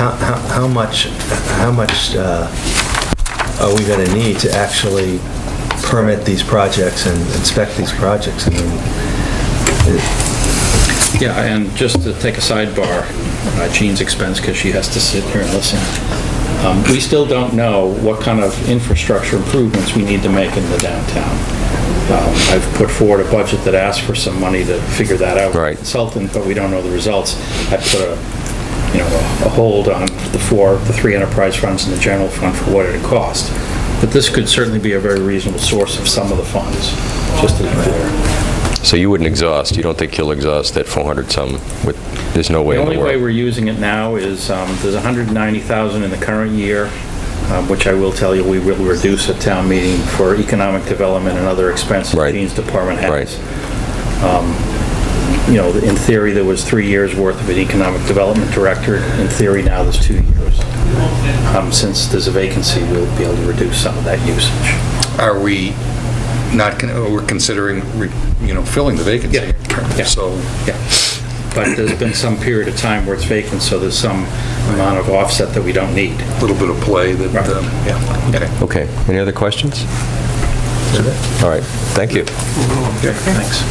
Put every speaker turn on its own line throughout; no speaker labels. How- How how much, how much uh, are we going to need to actually permit these projects and inspect these projects? I mean,
Yeah, and just to take a sidebar, at Jean's expense, because she has to sit here and listen, um, we still don't know what kind of infrastructure improvements we need to make in the downtown. Um, I've put forward a budget that asks for some money to figure that out.
Right.
Consultant, but we don't know the results. I put a, you know, a hold on the four, the three enterprise funds and the general fund for what it cost. But this could certainly be a very reasonable source of some of the funds, just to be clear.
So you wouldn't exhaust, you don't think you'll exhaust that 400-some with, there's no way in the
only way we're
world?
using it now is, um, there's 190,000 in the current year, um, which I will tell you, we will reduce at town meeting for economic development and other expenses
Right.
Gene's department has.
Right.
Um, You know, in theory, there was three years' worth of an economic development director. In theory, now there's two years. Um, Since there's a vacancy, we'll be able to reduce some of that usage.
Are we not, gonna- oh, we're considering, re- you know, filling the vacancy?
Yeah.
So,
Yeah, but there's been some period of time where it's vacant, so there's some amount of offset that we don't need.
a little bit of play
Right.
that, um, yeah, okay.
Okay, any other questions? All right, thank you.
Thanks.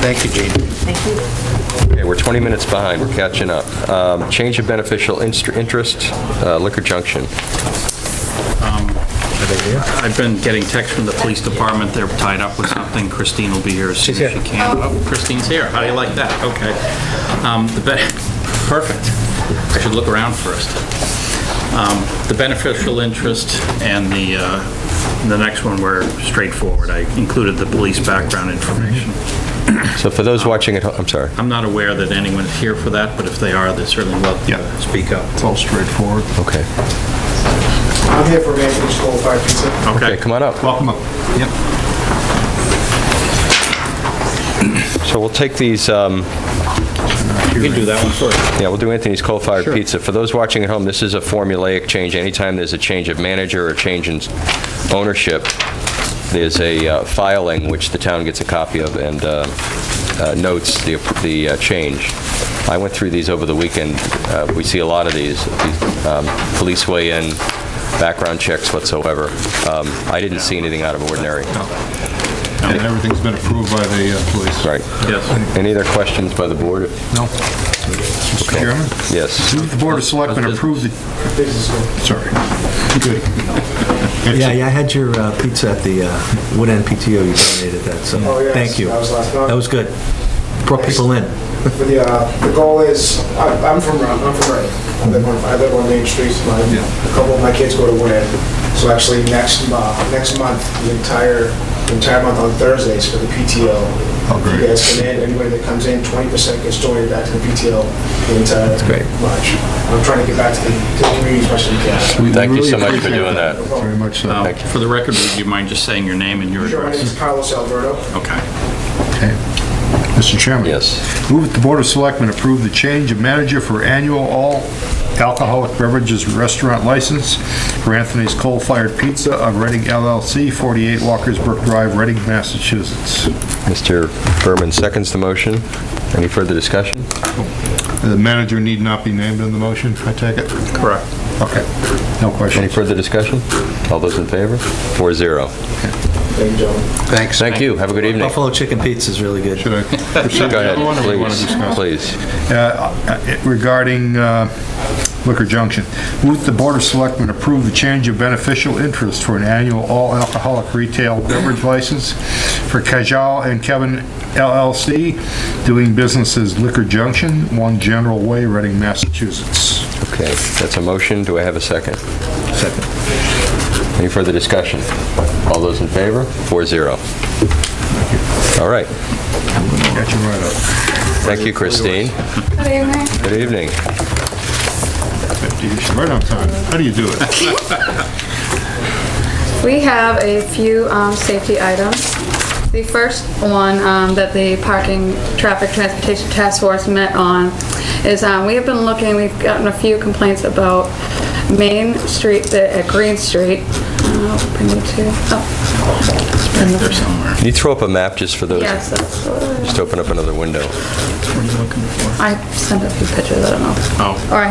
Thank you, Gene.
Okay, we're 20 minutes behind, we're catching up. Um, Change of beneficial inst- interest, uh, Liquor Junction.
I've been getting texts from the police department, they're tied up with something, Christine will be here as soon as she can. Oh, Christine's here, how do you like that? Okay. Um, the be- Perfect. I should look around first. Um, The beneficial interest and the, uh, the next one were straightforward. I included the police background information.
So for those watching at home, I'm sorry.
I'm not aware that anyone is here for that, but if they are, they're certainly welcome to speak up.
It's all straightforward.
Okay.
I'm here for Vantage School Fire Pizza.
Okay, come on up.
Welcome up.
So we'll take these, um,
You can do that one first.
yeah, we'll do Anthony's Coal-Fired Pizza. For those watching at home, this is a formulaic change. Anytime there's a change of manager or change in ownership, there's a uh, filing which the town gets a copy of and uh, uh, notes the the uh, change. I went through these over the weekend. Uh, We see a lot of these. These, um, Police weigh in, background checks whatsoever. Um, I didn't see anything out of ordinary.
And everything's been approved by the uh, police.
Right.
Yes.
Any other questions by the board?
No. Mr. Chairman?
Yes.
The Board of Selectmen approved the, sorry. Good.
Yeah, yeah, I had your uh, pizza at the uh, Wood End PTO, you donated that, so
Oh, yes,
thank you.
that was last night.
That was good. Brought people in.
But the, uh, the goal is, I- I'm from, Ron- I'm from Reading. I live on, I live on Main Street. My, a couple of my kids go to Wood End. So actually, next, mo- next month, the entire, the entire month on Thursdays for the PTO. If you
great.
guys come in, anybody that comes in, 20% gets donated back to the PTO the entire
great.
March. I'm trying to get back to the, to the community as much as we can.
We
Thank you
really
so much for
appreciate
doing that.
Very much so.
Um, For the record, would you mind just saying your name and your
Sure, my name is
address?
Carlos Alberto.
Okay.
Okay. Mr. Chairman?
Yes.
Move that the Board of Selectmen approve the change of manager for annual all alcoholic beverages restaurant license for Anthony's Coal Fired Pizza of Reading LLC, 48 Walkersburg Drive, Reading, Massachusetts.
Mr. Berman seconds the motion. Any further discussion?
The manager need not be named in the motion, I take it?
Correct.
Okay, no
Any
questions.
further discussion? All those in favor? Four zero.
Thank you, gentlemen.
Thanks.
Thank you. Have a good evening. Go
Buffalo chicken pizza is really good.
Should I proceed to the
ahead,
other one, or we wanna discuss?
please. Please.
Uh, regarding uh, Liquor Junction. Move the Board of Selectmen approve the change of beneficial interest for an annual all-alcoholic retail beverage license for Kajal and Kevin LLC, doing business as Liquor Junction, One General Way, Reading, Massachusetts.
Okay, that's a motion. Do I have a second? Second. Any further discussion? All those in favor? Four zero. All right.
Got you right up.
Thank you, Christine. Good evening.
Right on time. How do you do it?
We have a few um, safety items. The first one um, that the Parking Traffic Transportation Task Force met on is, um, we have been looking, we've gotten a few complaints about Main Street, the- at Green Street. Uh, bring it to- oh,
There somewhere.
Can you throw up a map just for those?
Yes, that's what I-
Just open up another window.
I sent a few pictures, I don't know.
Oh.
Or I